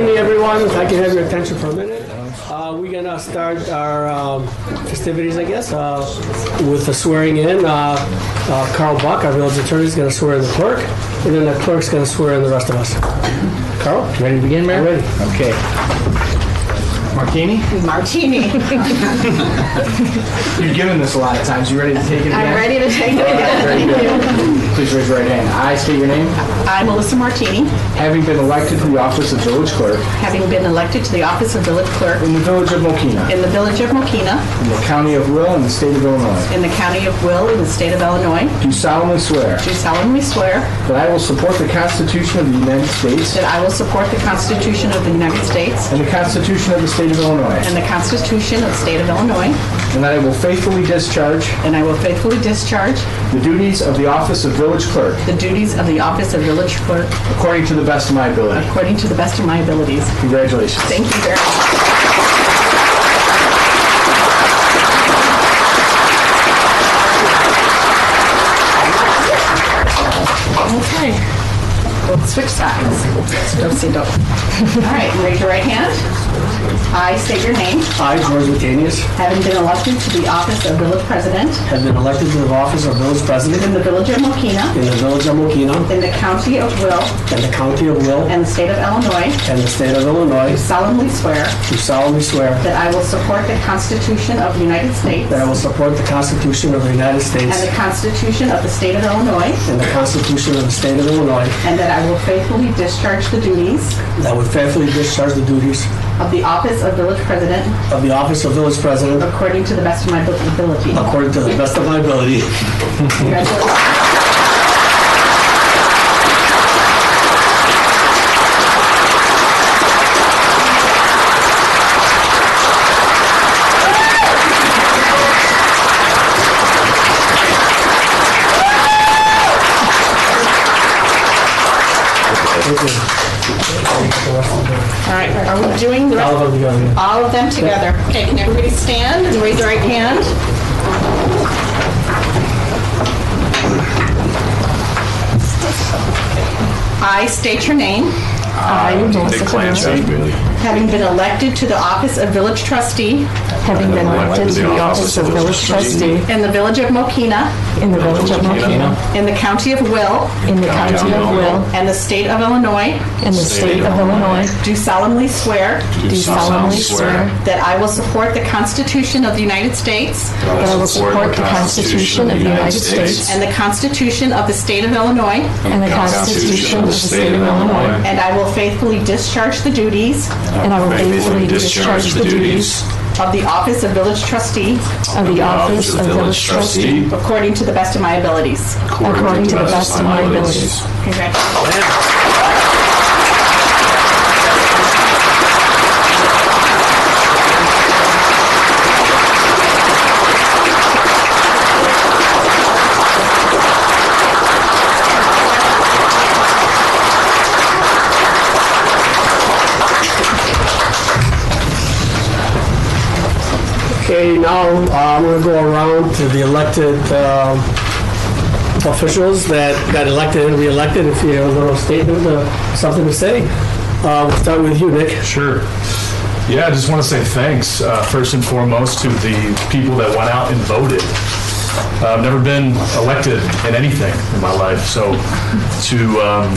one, if I can have your attention for a minute. Uh, we're gonna start our um, festivities, I guess, uh, with the swearing in. Uh, uh, Carl Buck, our village attorney, is gonna swear in the clerk, and then the clerk's gonna swear in the rest of us. Carl? Ready to begin, Mayor? Ready. Okay. Martini, Martini. you've given this a lot of times. You ready to take it again? I'm ready to take it again. Thank you. Please raise your right hand. I state your name. I'm Melissa Martini, Having been elected to the office of village clerk having been elected to the office of village clerk in the village of Mokina, in the village of Mokina, in the county of Will, and the state of Illinois, in the county of Will, in the state of Illinois, do solemnly swear do solemnly swear that I will support the Constitution of the United States that I will support the Constitution of the United States and the Constitution of the state of Illinois, and the Constitution of the state of Illinois, and that I will faithfully discharge and I will faithfully discharge the duties of the office of village clerk the duties of the office of village clerk according to the best of my ability. according to the best of my abilities. Congratulations. Thank you very much. Okay. We'll switch sides. Dope-si-dope. All right, raise your right hand. I state your name. I, George Latanius, Having been elected to the office of village president have been elected to the office of village president in the village of Mokina, in the village of Mokina, in the county of Will, in the county of Will, and the state of Illinois, and the state of Illinois, solemnly swear do solemnly swear that I will support the Constitution of the United States that I will support the Constitution of the United And States the Constitution of the State of Illinois. and the Constitution of the state of Illinois, And that I will faithfully discharge the duties that I will faithfully discharge the duties of the office of village president of the office of village president according to the best of my ability. according to the best of my ability. Congratulations. All right, are we doing the rest? All of you on here. All of them together. Okay, can everybody stand and raise your right hand? I state your name, I, Melissa Cameron, having been elected to the office of village trustee having been elected to the office of village trustee in the village of Mokina, in the village of Mokina, in the county of Will, in the county of Will, and the state of Illinois, in the state of Illinois, do solemnly swear do solemnly swear that I will support the Constitution of the United States that I will support the Constitution of the United States and the Constitution of the state of Illinois, and the Constitution of the state of Illinois, and I will faithfully discharge the duties and I will faithfully discharge the duties of the office of village trustee of the office of village trustee according to the best of my abilities. according to the best of my abilities. Congratulations. Okay, now uh, I'm going to go around to the elected um, officials that got elected and re-elected. If you have a little statement, uh, something to say. Uh, We'll start with you, Nick. Sure. Yeah, I just want to say thanks, uh, first and foremost, to the people that went out and voted. Uh, I've never been elected in anything in my life, so to, um,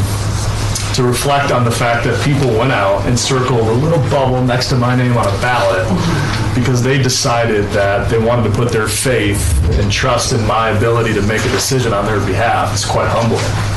to reflect on the fact that people went out and circled a little bubble next to my name on a ballot because they decided that they wanted to put their faith and trust in my ability to make a decision on their behalf is quite humbling.